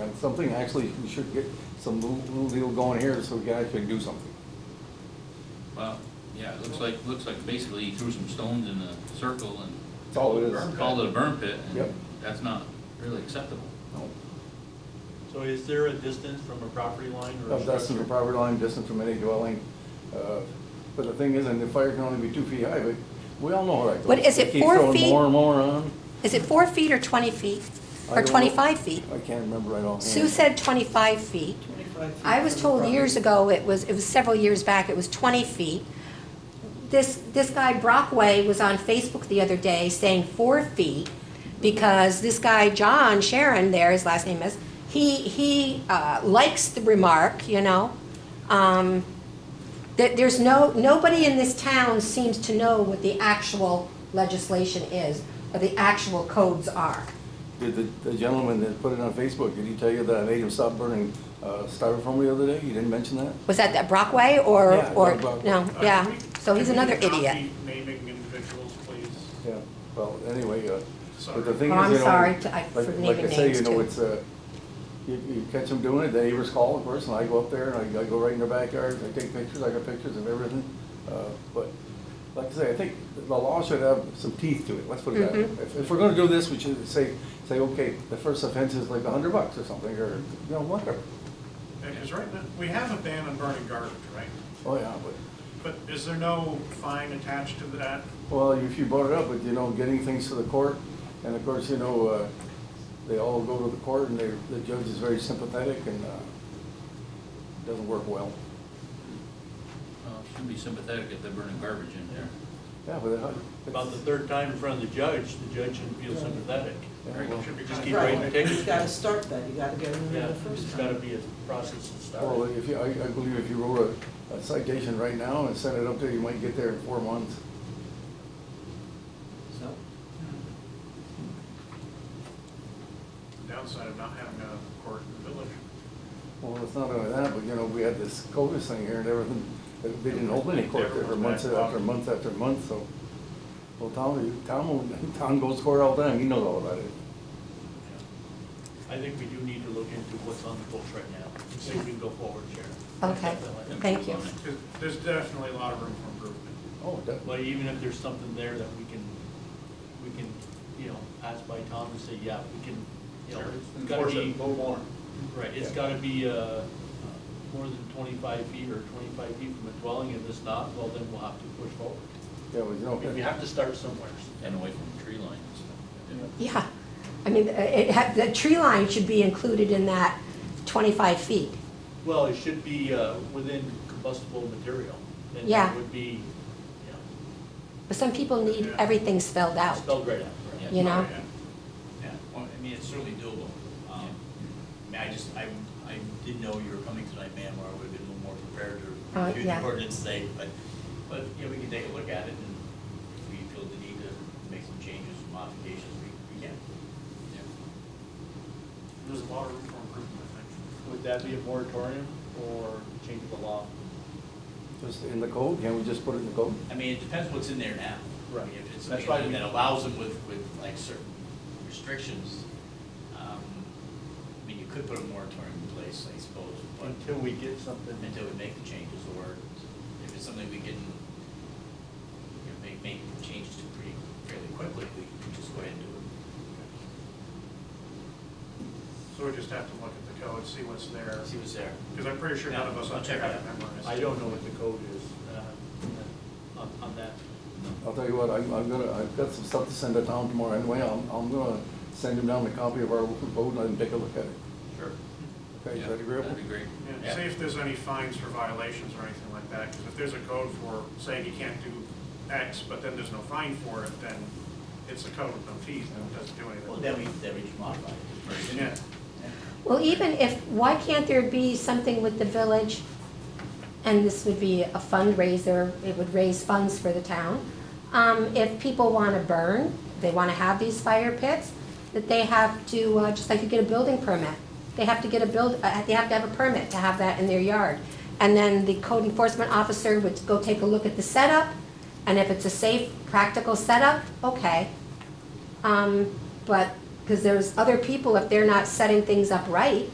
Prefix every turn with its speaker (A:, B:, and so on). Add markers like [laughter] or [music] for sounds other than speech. A: It's something, actually, we should get some little little deal going here so we guys can do something.
B: Wow, yeah, it looks like, looks like basically he threw some stones in a circle and
A: That's all it is.
B: called it a burn pit,
A: Yep.
B: and that's not really acceptable.
A: No.
C: So is there a distance from a property line or? a
A: Of Oh, That's the
C: structure?
A: property line, distant from any dwelling. uh, But the thing is, and the fire can only be two feet high, but we all know how that goes.
D: What is it,
A: They keep
D: four
A: throwing
D: feet?
A: More and more on.
D: Is it four feet or 20 feet?
A: I
D: Or
A: don't know.
D: 25 feet?
A: I can't remember right offhand.
D: Sue said 25 feet.
E: 25 feet
D: I was
E: from the
D: told
E: property.
D: years ago, it was, it was several years back, it was 20 feet. This, this guy Brockway was on Facebook the other day saying four feet because this guy John Sharon there, his last name is, he, he uh, likes the remark, you know? Um, There, there's no, nobody in this town seems to know what the actual legislation is or the actual codes are.
A: Did the- the gentleman that put it on Facebook, did he tell you that I made him stop burning uh, styrofoam the other day? You didn't mention that?
D: Was that that Brockway or,
A: Yeah,
D: or,
A: Doug Brockway.
D: no,
F: Uh,
D: yeah,
F: can we-
D: so he's
F: can we
D: another
F: not
D: idiot.
F: be Naming individuals, please.
A: Yeah, well, anyway, uh, but the
F: Sorry.
A: thing
D: Oh,
A: is,
D: I'm
A: you know,
D: sorry to- I- for
A: like, like I
D: naming
A: say,
D: names,
A: you know,
D: too.
A: it's, uh, you, you catch them doing it, the neighbors call, of course, and I go up there and I, I go right in their backyard, I take pictures, I got pictures of everything. Uh, but, like I say, I think the law should have some teeth to it, let's put it that way.
D: Mhm.
A: If, if we're gonna do this, we should say, say, okay, the first offense is like a hundred bucks or something, or, you know, whatever.
F: Because right now, we have a ban on burning garbage, right?
A: Oh, yeah, but,
F: But is there no fine attached to that?
A: well, if you brought it up, but, you know, getting things to the court, and of course, you know, uh, they all go to the court and they, the judge is very sympathetic and, uh, doesn't work well.
B: Well, should be sympathetic if they're burning garbage in there.
A: Yeah, but. uh, it-
C: About the third time in front of the judge, the judge should feel sympathetic.
A: Yeah, well,
F: Should be
C: Just
F: kind
C: keep
F: of-
C: writing
E: Right,
C: tickets.
E: you gotta start that, you gotta get them
C: Yeah,
E: in the first
C: it's
E: time.
C: gotta be a process that
A: Well,
C: starts.
A: if you, I, I believe if you wrote a- a citation right now and sent it up there, you might get there in four months.
E: So,
F: Downside of not having a court in the village.
A: Well, it's not only that, but you know, we had this COVID thing here and everything, they didn't hold any court there for months after months after months, so. Well, Tom, Tom, will- Tom [laughs] goes to court all the time, he knows all about it.
C: I think we do need to look into what's on the books right now, and see if we can go forward, Sharon.
D: Okay, thank you.
F: Because There's definitely a lot of room for improvement.
A: Oh, definitely.
C: But even if there's something there that we can, we can, you know, ask by Tom and say, yeah, we can, you know, it's gotta
F: Enforce
C: be,
F: it a little more.
C: right, it's
A: Yeah.
C: gotta be, uh, uh, more than twenty-five feet or twenty-five feet from a dwelling, and if it's not, well, then we'll have to push forward.
A: Yeah, but you know.
C: We- We have to start somewhere.
B: And away from tree lines and stuff.
D: Yeah, I mean, it, had- the tree line should be included in that 25 feet.
C: Well, it should be, uh, within combustible material, and
D: Yeah.
C: that would be, you
D: But some people need everything spelled
C: know,
D: out,
C: spelled right out.
B: Yeah.
D: you know?
F: Yeah.
G: Yeah, well, I mean, it's certainly doable. Um, I mean, I just, I, I didn't know you were coming tonight, ma'am, or I would've been a little more prepared
D: Uh,
G: to review
D: yeah.
G: the ordinance today, but, but, you know, we can take a look at it, and if we feel the need to make some changes, modifications, we, we can.
F: There's a lot of room for improvement, I think.
C: Would that be a moratorium or change the law?
A: Just in the code, can't we just put it in the code?
G: I mean, it depends what's in there now.
C: Right.
G: I mean, If it's
C: That's why
G: something
C: we-
G: that allows them with, with like certain restrictions, um, I mean, you could put a moratorium in place, I suppose, but.
C: Until we get something.
G: until we make the changes, or if it's something we can, you know, make, make changes to pretty, fairly quickly, we can just go ahead and do it.
F: So we just have to look at the code, see what's there,
G: See what's there.
F: because I'm pretty sure none of us
G: I'll
F: on
G: check
F: here
G: it out.
F: have memorized.
C: I don't know what the code is uh, on on that.
A: I'll tell you what, I'm, I'm gonna, I've got some stuff to send to Tom tomorrow anyway, I'm, I'm gonna send him down a copy of our code and let him take a look at it.
B: Sure.
A: Okay,
B: Yeah,
A: is that agreeable?
B: That'd be great.
F: Yeah, See if there's any fines for violations or anything like that, because if there's a code for saying you can't do X, but then there's no fine for it, then it's a code with no fees, and it doesn't do anything.
G: Well, then we, then we just modify it.
F: Yeah,
D: Well, even if, why can't there be something with the village? And this would be a fundraiser, it would raise funds for the town. Um, if people wanna burn, they wanna have these fire pits, that they have to, uh, just like you get a building permit. They have to get a build, uh, they have to have a permit to have that in their yard. And then the code enforcement officer would go take a look at the setup, and if it's a safe, practical setup, okay. Um, but, because there's other people, if they're not setting things up right,